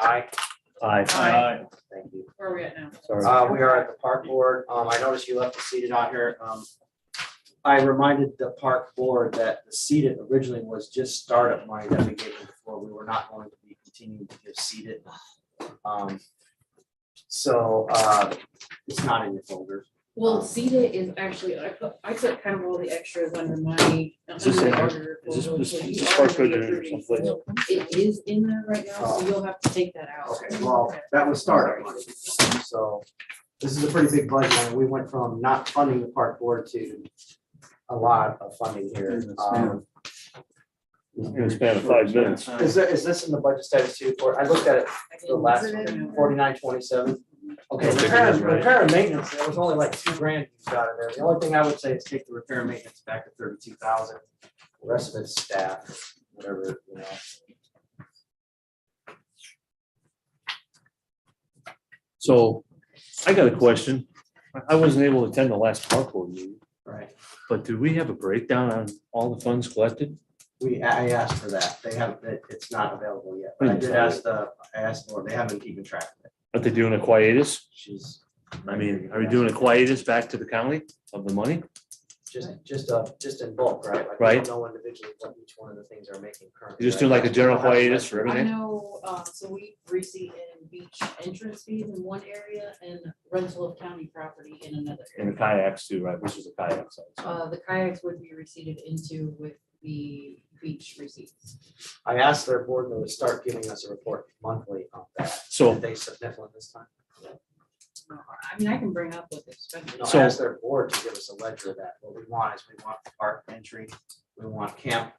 Aye. Aye. Thank you. Where are we at now? Sorry. Uh, we are at the park board. Um, I noticed you left the seated on here. Um, I reminded the park board that the seated originally was just startup money that we gave them before. We were not going to be continuing to give seated. Um, so, uh, it's not in your folder. Well, CETA is actually, I put, I took kind of all the extras under my. Is this in under the here? order Is this- folder, this- so this you is part already of it or approved. someplace? It is in there right now, so you'll have to take that out. Okay, well, that was startup money. So this is a pretty big budget. and We went from not funding the park board to a lot of funding here. Um, In the span of five minutes. Is there, is this in the budget status too, for, I looked at it, I can the last insert it. one, forty-nine twenty-seven. Okay, I think it repair, is, right? repair and maintenance, there was only like two grand you got in there, the only thing I would say is take the repair and maintenance back to thirty-two thousand. The rest of it's staff, whatever, you know. So I got a question. I- I wasn't able to attend the last park board meeting, Right. but do we have a breakdown on all the funds collected? We, I I asked for that, they have, it- it's not available yet, but I did ask the, I asked Laura, they haven't keeping track of it, Are they doing a quietus? she's. I mean, are we doing a quietus back to the county of the money? Just, just, uh, just in bulk, right? Like, we Right. don't Know individually what each one of the things are making currently. You just do right? like a general That's- quietus for I everything? know, uh, so we receive in beach entrance fees in one area and rental of county property in another And the area. kayaks too, right? Which is a kayak. size. Uh, the kayaks would be received into with the beach receipts. I asked their board to start giving us a report monthly on that. Did So, they submit one this time? Uh, I mean, I can bring up what they've spent. No, I So- asked their board to give us a ledger of that. What we want is we want park entry, we want camp,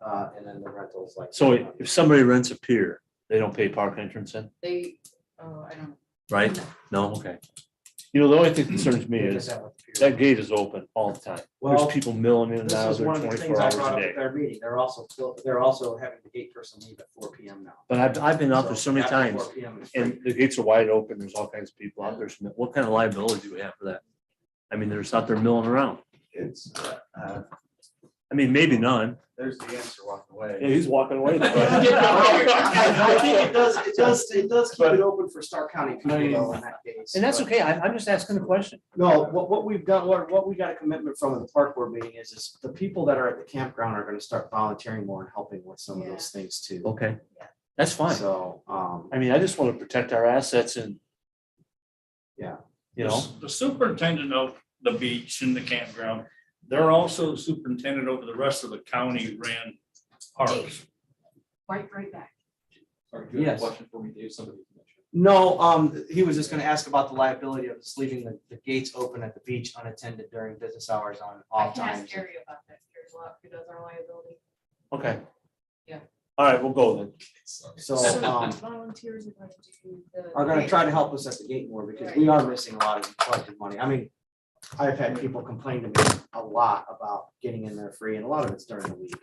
uh, and then the rentals like. so if somebody rents a pier, they don't pay park entrance in, They, oh, I don't. right? No, okay. You know, the only thing that concerns me We did is that with the that period. gate is open all the time. There's Well, people milling in and this out is of there one of the twenty-four things I hours brought a up at day. their meeting. They're also, clo- they're also having the gate person leave at four P M now. But I've, I've been out there so many after times 4 p.m. is free. and the gates are wide open. There's all kinds of people out there. So What kind of liability do we have for that? I mean, they're just out there milling around. It's, uh, uh, I mean, maybe none. there's the answer walking Yeah, away. he's walking away. I And think it does, it does, it does keep it open for Stark County people though in that case. that's but- okay. I'm, I'm just asking a question. No, what, what we've done, what, what we got a commitment from in the park board meeting is, is the people that are at the campground are gonna start volunteering more and helping with some of those things too. Okay, that's fine. So, um, I mean, I just want to protect our assets and. Yeah. You know, The superintendent of the beach and the campground, they're also superintendent over the rest of the county ran parks. Right, right back. Sorry, do you have Yes. a question for me, Dave? Somebody. no, um, he was just gonna ask about the liability of us leaving the, the gates open at the beach unattended during business hours on I off can ask times. Gary about that, Gary's lot, who does our liability. okay. Yeah. All right, we'll go then. So, So um, volunteers are going to do the. are gonna try to help us at the gate more because we are missing a lot of collected money. I mean, I've had people complain to me a lot about getting in there free and a lot of it's during the week.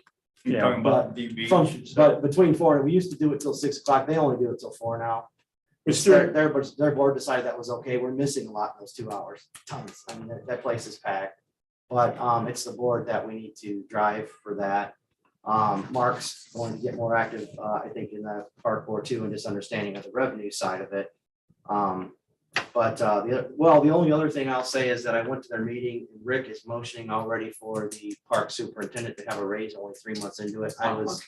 Yeah, You're talking about the From, beach. but between four, and we used to do it till six o'clock, they only do it till four now. It's Their, still, their, but their board decided that was okay, we're missing a lot in those two hours, tons, I mean, that, that place is packed. But, um, it's the board that we need to drive for that. Um, Mark's going to get more active, uh, I think, in the park board too, and just understanding of the revenue side of it. Um, but, uh, the, other- well, the only other thing I'll say is that I went to their meeting, Rick is motioning already for the park superintendent to have a raise only three months into it, I was.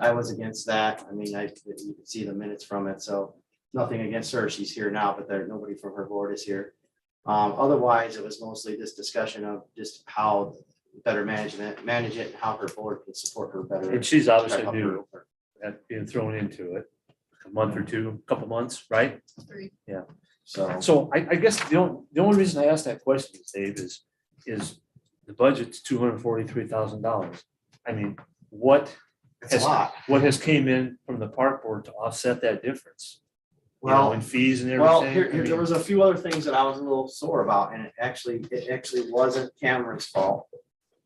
I was against that. I mean, I, you can see the minutes from it, so nothing against her. She's here now, but there, nobody from her board is here. Um, otherwise, it was mostly this discussion of just how better management, manage it, and how her board can support her better. and she's obviously Help her. new, at being thrown into it, a month or two, a couple months, right? Three. So, So I, I guess the only, the only reason I asked that question, Dave, is, is the budget's two hundred forty-three thousand dollars. I mean, what, it's a lot. what has came in from the park board to offset that difference? You know, Well, in fees and everything? well, here, here- there I mean, was a few other things that I was a little sore about, and it actually, it actually wasn't Cameron's fault.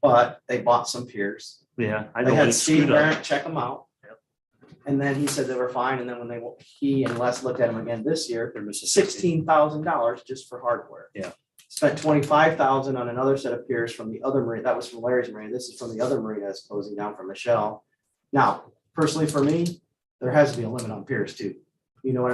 But they bought some piers. Yeah, I They know, had it's Steve screwed up. Barrett check them out. And then he said they were fine, and then when they, he and Les looked at them again this year, They're missing sixteen thousand dollars just for hardware. Yeah. Spent twenty-five thousand on another set of piers from the other marina, that was from Larry's marina, this is from the other marina that's closing down for Michelle. Now, personally for me, there has to be a limit on piers too. You know what